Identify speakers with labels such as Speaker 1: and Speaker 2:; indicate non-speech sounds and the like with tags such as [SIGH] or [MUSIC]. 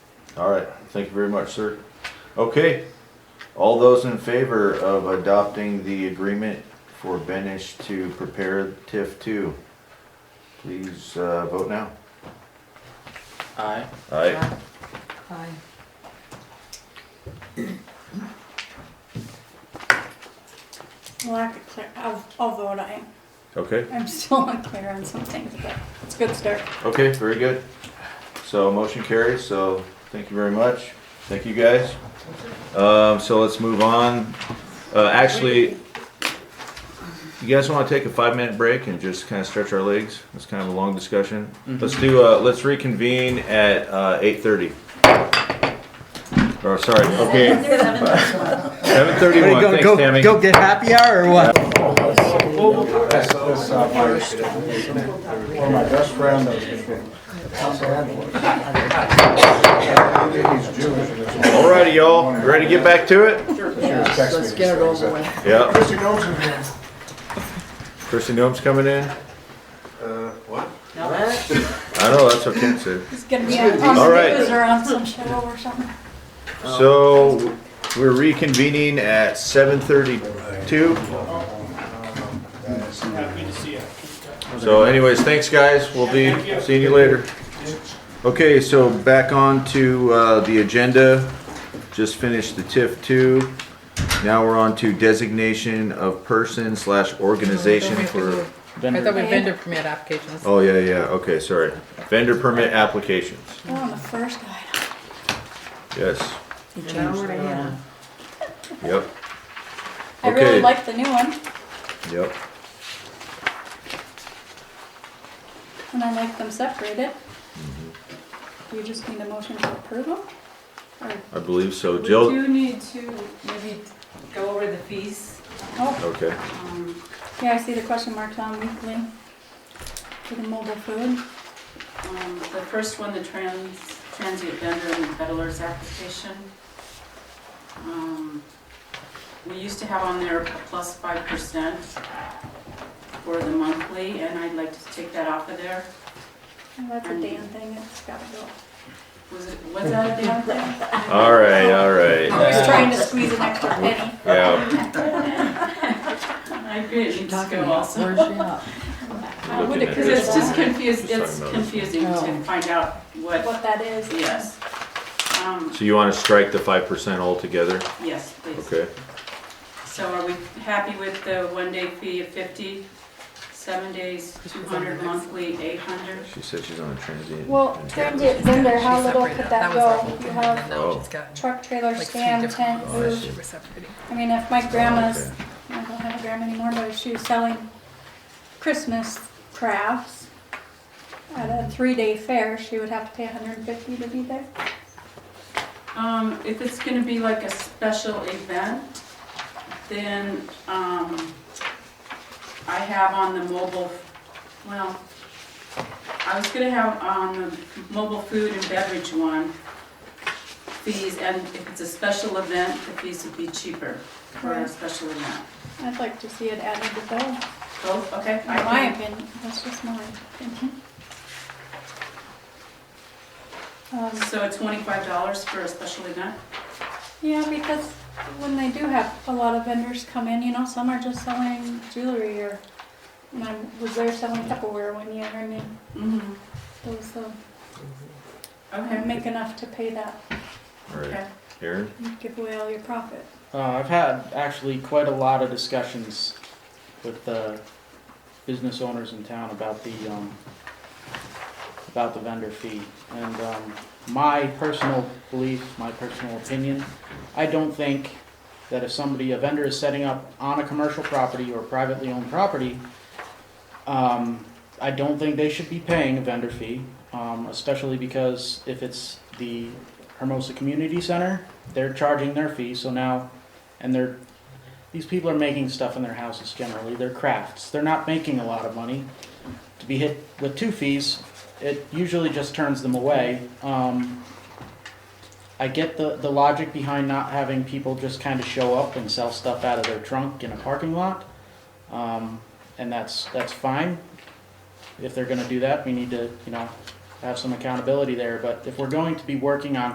Speaker 1: All right, thank you very much, sir. Okay, all those in favor of adopting the agreement for Benish to prepare TIF two, please uh, vote now.
Speaker 2: Aye.
Speaker 1: Aye.
Speaker 3: Aye.
Speaker 4: Well, I could clear, I'll, I'll vote aye.
Speaker 1: Okay.
Speaker 4: I'm still unclear on some things, but it's a good start.
Speaker 1: Okay, very good. So motion carries, so thank you very much. Thank you, guys. Um, so let's move on. Uh, actually, you guys wanna take a five-minute break and just kinda stretch our legs? It's kind of a long discussion.
Speaker 5: Mm-hmm.
Speaker 1: Let's do, uh, let's reconvene at, uh, eight-thirty. Or, sorry, okay, seven-thirty-one,
Speaker 5: Go,
Speaker 1: thanks,
Speaker 5: go,
Speaker 1: Tammy.
Speaker 5: go get happy hour or what?
Speaker 6: That's, that's, uh, my, one of my best friends, he's Jewish and it's.
Speaker 1: Alrighty, y'all, ready to get back to it?
Speaker 6: Yes,
Speaker 3: Let's get it over with.
Speaker 1: Yeah,
Speaker 6: Chrissy knows him,
Speaker 1: Christie Noem's coming in.
Speaker 6: uh, what?
Speaker 1: [LAUGHS] I know, that's what Ken said.
Speaker 4: It's gonna be on on
Speaker 1: All right.
Speaker 4: the news or on some show or something.
Speaker 1: So we're reconvening at seven thirty-two.
Speaker 7: Happy to see you.
Speaker 1: So anyways, thanks guys. We'll be seeing you later. Okay, so back on to uh, the agenda. Just finished the TIF two. Now we're on to designation of person slash organization for,
Speaker 3: I thought
Speaker 2: Vendor,
Speaker 3: we vendor permit applications.
Speaker 1: oh yeah, yeah, okay, sorry. Vendor permit applications.
Speaker 4: We're on the first item.
Speaker 1: Yes,
Speaker 3: An hour and a half.
Speaker 1: yep,
Speaker 4: I
Speaker 1: Okay.
Speaker 4: really like the new one,
Speaker 1: yep.
Speaker 4: and I like them separated.
Speaker 1: Mm-hmm.
Speaker 4: You just need a motion to approve them? Or,
Speaker 1: I believe so.
Speaker 8: We
Speaker 1: Jill,
Speaker 8: do need to maybe go over the fees.
Speaker 4: oh,
Speaker 1: okay.
Speaker 8: Um,
Speaker 4: yeah, I see the question marks on weekly for the mobile food.
Speaker 8: um, The first one, the trans, transient vendor and peddler's application. Um, We used to have on there plus five percent for the monthly, and I'd like to take that off of there.
Speaker 4: Oh, That's a damn thing, it's gotta go.
Speaker 8: Was it, was that a damn thing?
Speaker 1: All right, all right.
Speaker 4: I was trying to squeeze an extra penny.
Speaker 1: Yeah.
Speaker 8: [LAUGHS] I agree, it needs to
Speaker 3: Talking
Speaker 8: go
Speaker 3: about,
Speaker 8: also. [LAUGHS]
Speaker 3: where's she up?
Speaker 4: I would
Speaker 1: Looking at
Speaker 4: agree
Speaker 8: Because
Speaker 1: this.
Speaker 4: with
Speaker 8: it's just
Speaker 4: that,
Speaker 8: confused,
Speaker 1: Just
Speaker 8: it's
Speaker 1: talking about it.
Speaker 8: confusing to
Speaker 3: Oh.
Speaker 8: find out what,
Speaker 4: what that is.
Speaker 8: yes. Um,
Speaker 1: So you want to strike the five percent altogether?
Speaker 8: Yes, please.
Speaker 1: Okay.
Speaker 8: So are we happy with the one-day fee of 50, seven days, 200 monthly, 800?
Speaker 1: She said she's on a transient.
Speaker 4: Well, transient vendor, how
Speaker 3: She
Speaker 4: little
Speaker 3: separated
Speaker 4: could
Speaker 3: it.
Speaker 4: that
Speaker 3: was our
Speaker 4: go?
Speaker 3: whole
Speaker 4: You
Speaker 3: thing, and
Speaker 4: have
Speaker 1: Oh.
Speaker 3: Now she's got
Speaker 4: truck, trailer,
Speaker 3: like three
Speaker 4: stand,
Speaker 3: different Oh,
Speaker 4: tent,
Speaker 3: ones.
Speaker 4: booth.
Speaker 3: She was separating.
Speaker 4: I mean, if my grandma's,
Speaker 1: Okay.
Speaker 4: I don't have a grandma anymore, but if she was selling Christmas crafts at a three-day fair, she would have to pay hundred and fifty to be there.
Speaker 8: Um, If it's going to be like a special event, then um, I have on the mobile, well, I was going to have on the mobile food and beverage one, fees, and if it's a special event, the fees would be cheaper for a
Speaker 4: Right.
Speaker 8: special event.
Speaker 4: I'd like to see it added to both,
Speaker 8: Both, okay?
Speaker 4: in
Speaker 8: I can-
Speaker 4: my opinion, that's just my opinion. Um,
Speaker 8: So twenty-five dollars for a special event?
Speaker 4: Yeah, because when they do have a lot of vendors come in, you know, some are just selling jewelry or, and I was there selling Tupperware one year, I mean,
Speaker 8: Mm-hmm.
Speaker 4: those, uh,
Speaker 8: Okay.
Speaker 4: make enough to pay that,
Speaker 1: All right,
Speaker 8: Okay.
Speaker 1: Aaron?
Speaker 4: you give away all your profit.
Speaker 2: uh, I've had actually quite a lot of discussions with the business owners in town about the, um, about the vendor fee. And, um, my personal belief, my personal opinion, I don't think that if somebody, a vendor is setting up on a commercial property or privately owned property, um, I don't think they should be paying a vendor fee, um, especially because if it's the Hermosa Community Center, they're charging their fee, so now, and they're, these people are making stuff in their houses generally, they're crafts, they're not making a lot of money. To be hit with two fees, it usually just turns them away. Um, I get the, the logic behind not having people just kind of show up and sell stuff out of their trunk in a parking lot. Um, and that's, that's fine. If they're gonna do that, we need to, you know, have some accountability there, but if we're going to be working on